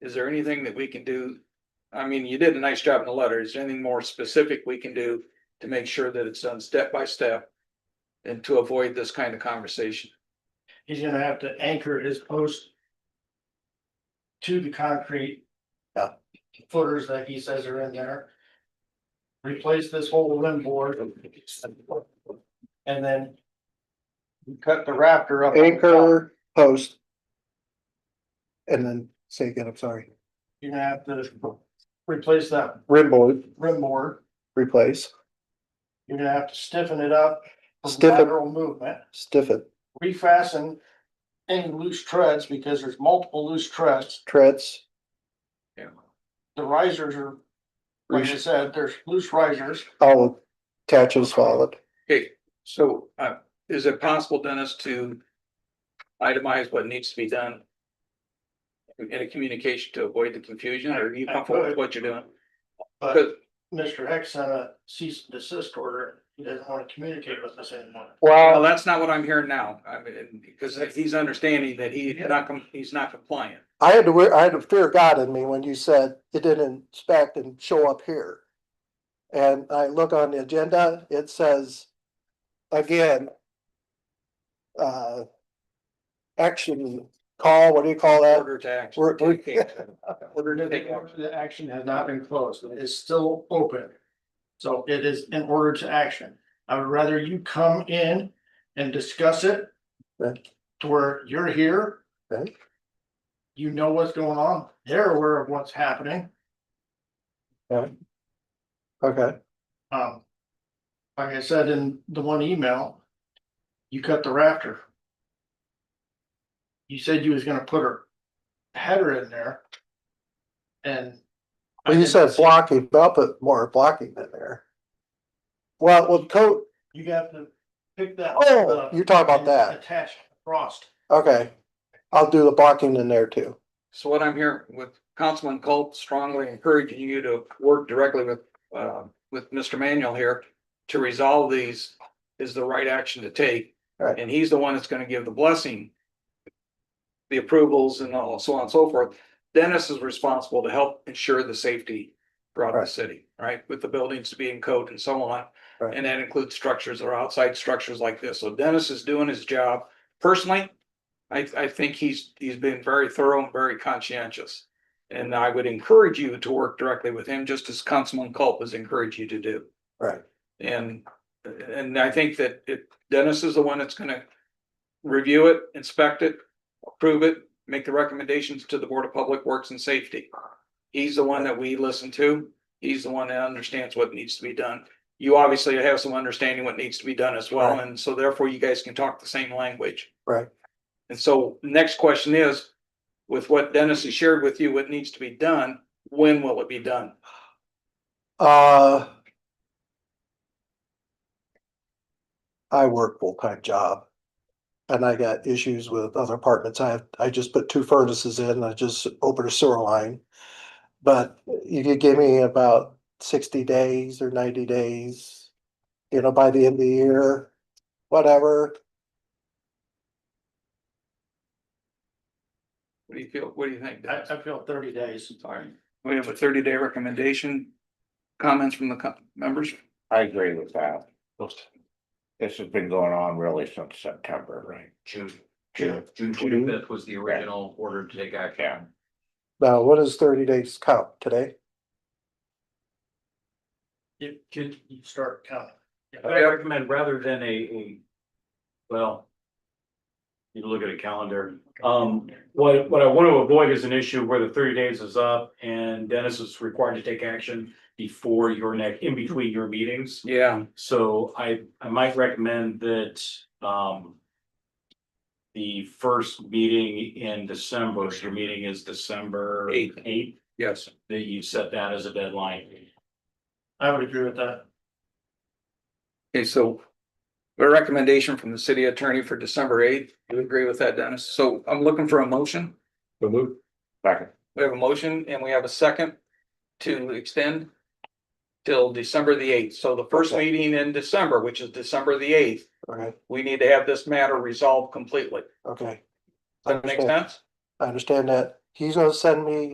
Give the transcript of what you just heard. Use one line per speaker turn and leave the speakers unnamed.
Is there anything that we can do? I mean, you did a nice job in the letter. Is there anything more specific we can do to make sure that it's done step by step? And to avoid this kind of conversation?
he's gonna have to anchor his post. To the concrete.
Yeah.
Footers that he says are in there. Replace this whole limb board. And then. Cut the rafter up. on the top.
anchor, post. And then say again, I'm sorry,
You're gonna have to replace that
rim board,
rim board,
replace,
you're gonna have to stiffen it up. for
Stiffen.
Lateral movement.
stiff it,
refasten any loose treads because there's multiple loose treads.
treads,
Yeah.
The risers are, like I said, there's loose risers.
all attached and solid.
Okay, so uh, is it possible, Dennis, to itemize what needs to be done? In a communication to avoid the confusion, or are you comfortable with what you're doing?
But
Because
Mr. Hex sent a cease and desist order. He doesn't want to communicate with us anymore.
well,
Well,
that's not what I'm hearing now, I mean, because he's understanding that he not, com- he's not compliant.
I had to, wear- I had a fear of God in me when you said it didn't inspect and show up here. And I look on the agenda, it says, again. Uh. Action call, what do you call that?
Order to act.
We're- we're-
Take action. Order to take action.
The action has not been closed. It is still open. So it is in order to action. I would rather you come in and discuss it
Okay.
to where you're here.
Okay.
You know what's going on. They're aware of what's happening.
Okay,
Um. Like I said in the one email. You cut the rafter. You said you was gonna put a header in there. And. I
well, you
didn't
said
see-
blocking, but I'll put more blocking in there. Well, well, code,
You got to pick that.
Oh,
up
you're talking about
and
that.
Attach frost.
Okay. I'll do the blocking in there too.
So what I'm hearing with Councilman Colt strongly encouraging you to work directly with, uh, with Mr. Manuel here to resolve these is the right action to take.
Right.
And he's the one that's gonna give the blessing, the approvals and all, so on and so forth. Dennis is responsible to help ensure the safety throughout the
Right.
city, right? With the buildings to be in code and so on.
Right.
And that includes structures or outside structures like this. So Dennis is doing his job. Personally, I, I think he's, he's been very thorough and very conscientious. And I would encourage you to work directly with him, just as Councilman Culp has encouraged you to do.
Right.
And, and I think that it, Dennis is the one that's gonna review it, inspect it, approve it, make the recommendations to the Board of Public Works and Safety. He's the one that we listen to. He's the one that understands what needs to be done. You obviously have some understanding what needs to be done as well,
Right.
and so therefore you guys can talk the same language.
Right.
And so next question is, with what Dennis has shared with you, what needs to be done, when will it be done?
Uh. I work full-time job. And I got issues with other apartments. I have, I just put two furnaces in. I just opened a sewer line. But you could give me about sixty days or ninety days, you know, by the end of the year, whatever.
What do you feel, what do you think?
I,
Dennis?
I feel thirty days.
Sorry, we have a thirty day recommendation. Comments from the co- members?
I agree with that. This has been going on really since September. Right.
June.
June.
June twenty fifth was the original order to take action.
Now, what does thirty days count today?
You could you start counting.
But I recommend rather than a, a, well. You look at a calendar, um, what, what I want to avoid is an issue where the thirty days is up and Dennis is required to take action. Before your next, in between your meetings,
Yeah.
so I, I might recommend that, um. The first meeting in December, if your meeting is December
Eighth.
eighth.
Yes.
that you set that as a deadline.
I would agree with that.
Okay, so a recommendation from the city attorney for December eighth. You agree with that, Dennis? So I'm looking for a motion.
Second,
We have a motion and we have a second to extend till December the eighth. So the first
Okay.
meeting in December, which is December the eighth,
Okay,
we need to have this matter resolved completely.
okay. I
Does that make
understand.
sense?
I understand that. He's gonna send me